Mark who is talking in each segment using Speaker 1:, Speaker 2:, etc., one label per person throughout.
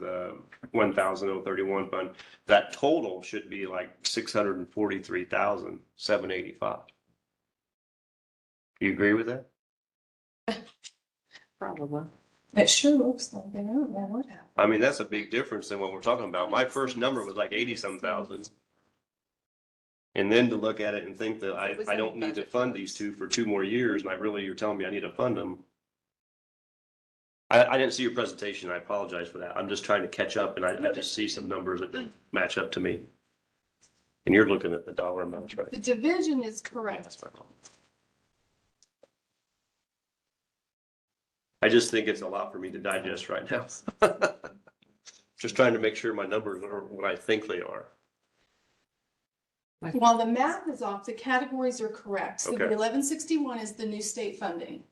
Speaker 1: the one thousand oh thirty-one fund, that total should be like six hundred and forty-three thousand, seven eighty-five. Do you agree with that?
Speaker 2: Probably.
Speaker 3: It sure looks like they don't know what happened.
Speaker 1: I mean, that's a big difference than what we're talking about. My first number was like eighty-some thousand. And then to look at it and think that I, I don't need to fund these two for two more years, and I really, you're telling me I need to fund them. I, I didn't see your presentation. I apologize for that. I'm just trying to catch up, and I, I just see some numbers that don't match up to me. And you're looking at the dollar amounts, right?
Speaker 3: The division is correct.
Speaker 1: That's my fault. I just think it's a lot for me to digest right now. Just trying to make sure my numbers are what I think they are.
Speaker 3: While the math is off, the categories are correct. So the
Speaker 1: Okay.
Speaker 3: eleven sixty-one is the new state funding.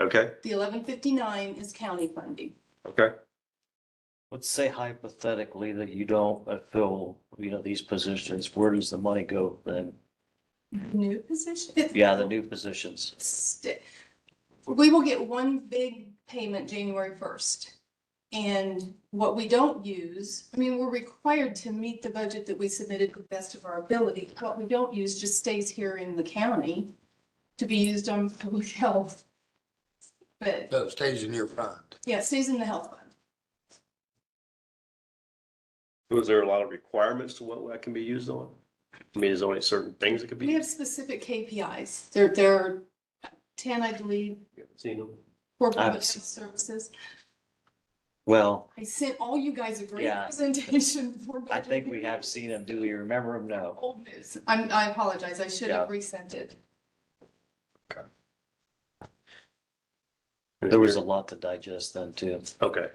Speaker 1: Okay,
Speaker 3: The eleven fifty-nine is county funding.
Speaker 1: okay.
Speaker 4: Let's say hypothetically that you don't uh, fill, you know, these positions, where does the money go then?
Speaker 3: New position?
Speaker 4: Yeah, the new positions.
Speaker 3: St- We will get one big payment January first. And what we don't use, I mean, we're required to meet the budget that we submitted to the best of our ability. What we don't use just stays here in the county to be used on public health. But
Speaker 5: So it stays in your fund.
Speaker 3: yeah, it stays in the health fund.
Speaker 1: Was there a lot of requirements to what that can be used on? I mean, is there only certain things that could
Speaker 3: We
Speaker 1: be?
Speaker 3: have specific KPIs. There, there are ten, I believe,
Speaker 1: seen them?
Speaker 3: for public health
Speaker 4: Absolutely.
Speaker 3: services.
Speaker 4: Well,
Speaker 3: I sent all you guys a great
Speaker 4: Yeah.
Speaker 3: presentation for.
Speaker 4: I
Speaker 3: budget.
Speaker 4: think we have seen them. Do we remember them? No.
Speaker 3: Old news. I'm, I apologize. I should have resent it.
Speaker 4: There was a lot to digest then too.
Speaker 1: Okay,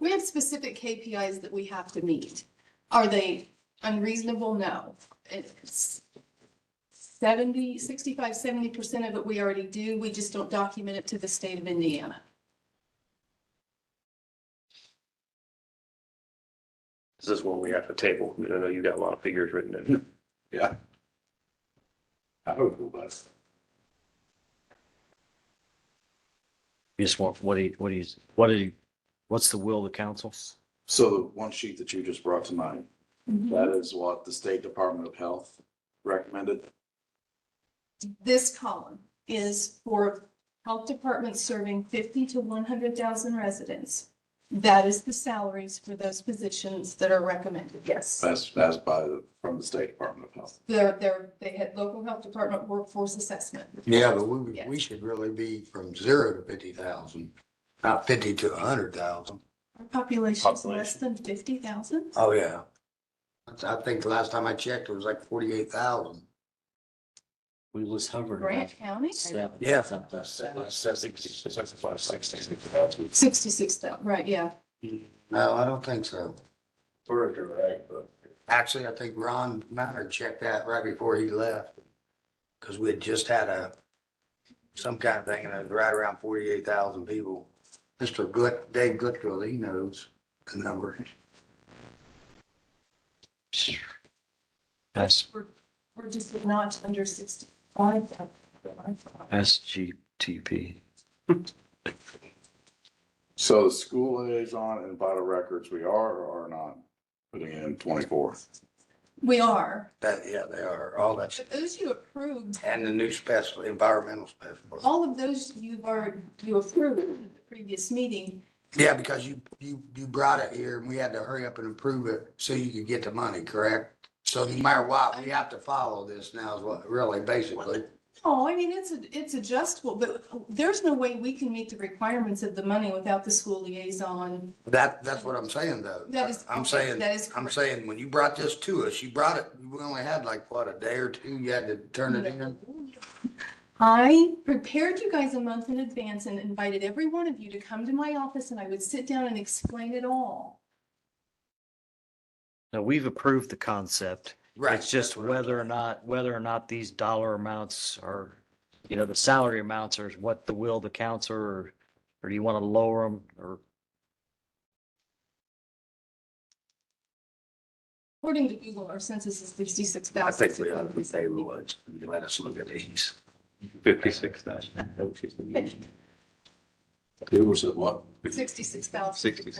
Speaker 3: We have specific KPIs that we have to meet. Are they unreasonable? No. It's 70, 65, 70 percent of it we already do. We just don't document it to the state of Indiana.
Speaker 1: this is one we have to table. I mean, I know you got a lot of figures written in.
Speaker 5: Yeah. I hope it was.
Speaker 4: You Just want, what do you, what do you, what do you, what's the will of the council?
Speaker 6: So the one sheet that you just brought tonight, that is what the State Department of Health recommended?
Speaker 3: This column is for health departments serving 50 to 100,000 residents. That is the salaries for those positions that are recommended. Yes.
Speaker 6: That's, that's by, the from the State Department of Health.
Speaker 3: They're, they're, they had local health department workforce assessment.
Speaker 5: Yeah, but we,
Speaker 3: Yeah.
Speaker 5: we should really be from zero to fifty thousand, not fifty to a hundred thousand.
Speaker 3: Our population is less than fifty thousand?
Speaker 5: Oh, yeah. That's- I think the last time I checked, it was like forty-eight thousand.
Speaker 4: We was hovering. around
Speaker 3: Grant County?
Speaker 4: seven,
Speaker 5: Yeah.
Speaker 4: something.
Speaker 3: Sixty-six thousand, right, yeah.
Speaker 5: No, I don't think so. Actually, I think Ron Matter checked that right before he left. Cause we had just had a, some kind of thing, and it was right around forty-eight thousand people. Mr. Gut, Dave Gutfield, he knows the number.
Speaker 4: That's,
Speaker 3: We're just a notch under sixty-five thousand.
Speaker 4: that's GTP.
Speaker 6: So the school liaison and vital records, we are or are not putting in twenty-four?
Speaker 3: We are,
Speaker 5: That, yeah, they are, all that, shit.
Speaker 3: but those you approved,
Speaker 5: and the new special, environmental special.
Speaker 3: all of those you've already, you approved in the previous meeting.
Speaker 5: Yeah, because you, you, you brought it here, and we had to hurry up and approve it so you could get the money, correct? So no matter what, we have to follow this now is what, really, basically.
Speaker 3: Oh, I mean, it's, a it's adjustable, but there's no way we can meet the requirements of the money without the school liaison.
Speaker 5: That, that's what I'm saying though.
Speaker 3: That is.
Speaker 5: I'm saying,
Speaker 3: That is.
Speaker 5: I'm saying, when you brought this to us, you brought it, we only had like, what, a day or two, you had to turn it in?
Speaker 3: I prepared you guys a month in advance and invited every one of you to come to my office and I would sit down and explain it all.
Speaker 4: Now, we've approved the concept.
Speaker 5: Right.
Speaker 4: It's just whether or not, whether or not these dollar amounts are, you know, the salary amounts are what the will of the council or, or do you want to lower them or?
Speaker 3: According to Google, our census is sixty-six
Speaker 5: I
Speaker 3: thousand.
Speaker 5: think we ought to say we would, let us look at these.
Speaker 1: Fifty-six thousand.
Speaker 6: It was at what?
Speaker 3: Sixty-six thousand.
Speaker 1: Sixty-six.